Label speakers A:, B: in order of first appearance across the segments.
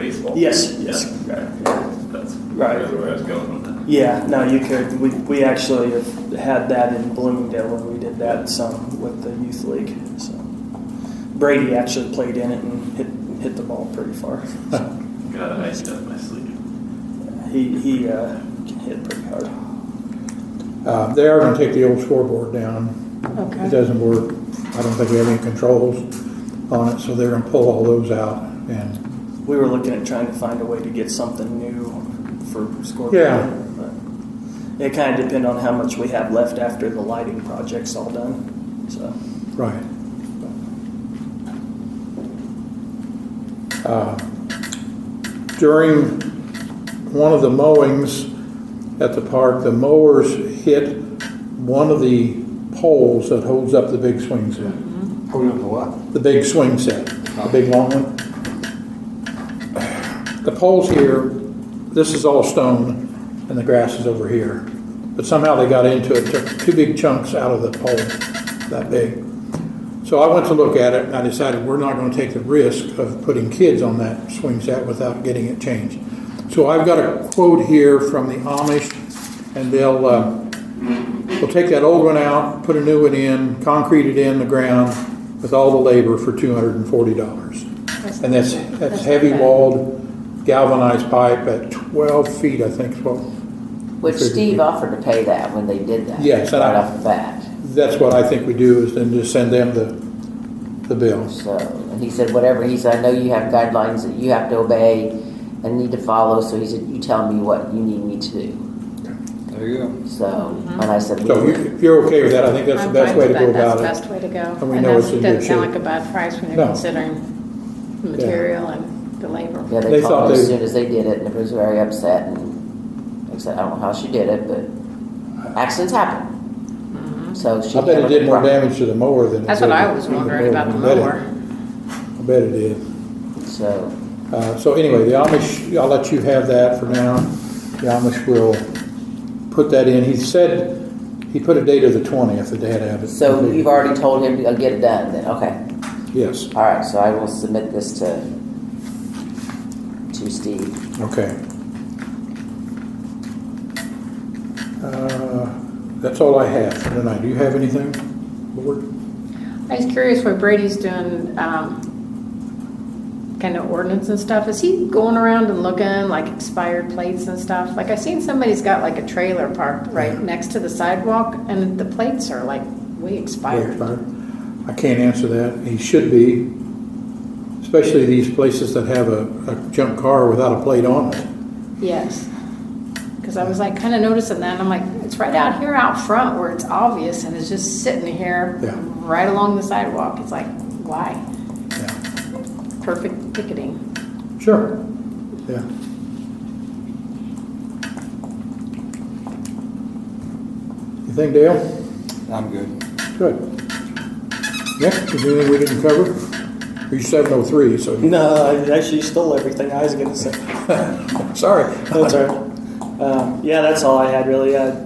A: baseball.
B: Yes,
A: Yeah,
B: yes.
A: okay, yeah, that's
B: Right.
A: that's where I was going with that.
B: Yeah, no, you could. We, we actually have had that in Bloomingdale when we did that some with the youth league. So Brady actually played in it and hit hit the ball pretty far. So,
A: Got it iced up my sleeve.
B: he he uh, can hit pretty hard.
C: Uh, They are gonna take the old scoreboard down. It
D: Okay.
C: doesn't work. I don't think we have any controls on it, so they're gonna pull all those out. And
B: We were looking at trying to find a way to get something new for Scorpio.
C: Yeah.
B: but It kind of depend on how much we have left after the lighting project's all done. So
C: Right. Uh, During one of the mowings at the park, the mowers hit one of the poles that holds up the big swing set.
E: Hold up the what?
C: The big swing set, the big long one. The poles here, this is all stone and the grass is over here. But somehow they got into it, took two big chunks out of the pole, that big. So I went to look at it and I decided we're not gonna take the risk of putting kids on that swing set without getting it changed. So I've got a quote here from the Amish and they'll, uh, We'll take that old one out, put a new one in, concrete it in the ground with all the labor for two hundred and forty dollars. And that's, that's heavy walled galvanized pipe at twelve feet, I think, is what,
F: Which Steve offered to pay that when they did that.
C: Yes, and I-
F: Right off the bat,
C: that's what I think we do is then just send them the, the bills.
F: so, and he said, whatever, he said, I know you have guidelines that you have to obey and need to follow, so he said, you tell me what you need me to do,
E: There you go.
F: so, and I said, we
C: So
F: will.
C: you- if you're okay with that, I think that's the
D: I'm
C: best
D: fine
C: way to
D: with
C: go
D: that.
C: about
D: That's
C: it.
D: the best way to go.
C: And we know it's
D: that
C: in good
D: Doesn't sound
C: shape.
D: like a bad price when
C: No.
D: you're considering the
C: Yeah.
D: material and the labor.
F: Yeah,
C: They
F: they
C: thought
F: called me as
C: they-
F: soon as they did it, and it was very upset, and like I said, I don't know how she did it, but accidents happen. So she.
C: I bet it
F: handled
C: did more
F: properly.
C: damage to the mower than it did.
D: That's what I was
C: to the
D: wondering about the
C: I bet it-
D: mower.
C: I bet it did.
F: So,
C: Uh, So anyway, the Amish, I'll let you have that for now. The Amish will put that in. He said, he put a date of the 20th that they had to have it.
F: so you've already told him to get it done, then, okay,
C: Yes,
F: all right, so I will submit this to, to Steve.
C: okay. Uh, That's all I have for tonight. Do you have anything, Board?
D: I was curious what Brady's doing, um, kind of ordinance and stuff. Is he going around and looking like expired plates and stuff? Like I seen somebody's got like a trailer parked right next to the sidewalk and the plates are like way expired.
C: I can't answer that. He should be, especially these places that have a a junk car without a plate on it.
D: Yes. Because I was like kind of noticing that and I'm like, it's right out here out front where it's obvious and it's just sitting here
C: Yeah.
D: right along the sidewalk. It's like, why?
C: Yeah.
D: Perfect ticketing.
C: Sure, yeah. You think, Dale?
E: I'm good.
C: Good. Nick, is there anything we didn't cover? You're seven oh three, so,
B: no, I actually stole everything I was going to say.
C: sorry.
B: That's all right. Um, yeah, that's all I had really. I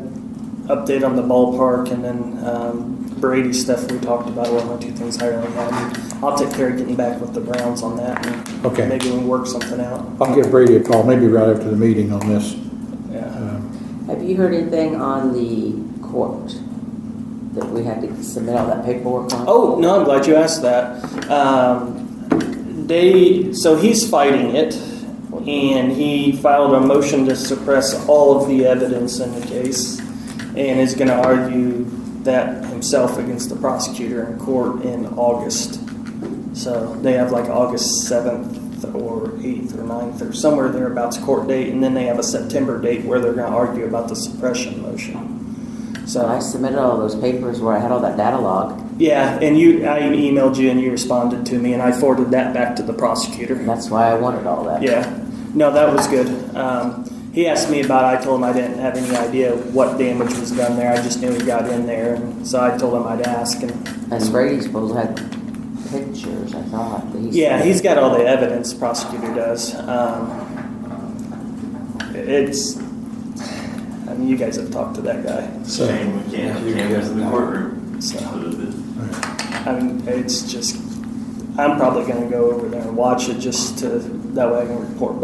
B: update on the ballpark and then um, Brady stuff we talked about were my two things I really had. I'll take care of getting back with the Browns on that. And
C: Okay.
B: Maybe we can work something out.
C: I'll give Brady a call, maybe right after the meeting on this.
B: Yeah.
C: Um,
F: Have you heard anything on the court that we had to submit all that paperwork on?
B: Oh no, I'm glad you asked that. Um, they so he's fighting it, and he filed a motion to suppress all of the evidence in the case, and is going to argue that himself against the prosecutor in court in August. So they have like August seventh or eighth or 9th or somewhere thereabouts court date, and then they have a September date where they're going to argue about the suppression motion. So
F: So I submitted all those papers where I had all that data log,
B: yeah, and you, I emailed you and you responded to me, and I forwarded that back to the
F: and
B: prosecutor.
F: that's why I wanted all that.
B: Yeah, no, that was good. Um, he asked me about. It. I told him I didn't have any idea what damage was done there. I just knew he got in there, and so I told him I'd ask. And
F: And Brady's supposed to have pictures, I thought. that he
B: yeah,
F: said.
B: he's got all the evidence. Prosecutor does. Um, it's. I mean, you guys have talked to that guy,
A: It's
B: so
A: a Shame we can't, we can't go to the courtroom.
B: So-
A: So the-
B: I mean, it's just. I'm probably going to go over there and watch it just to that way I can report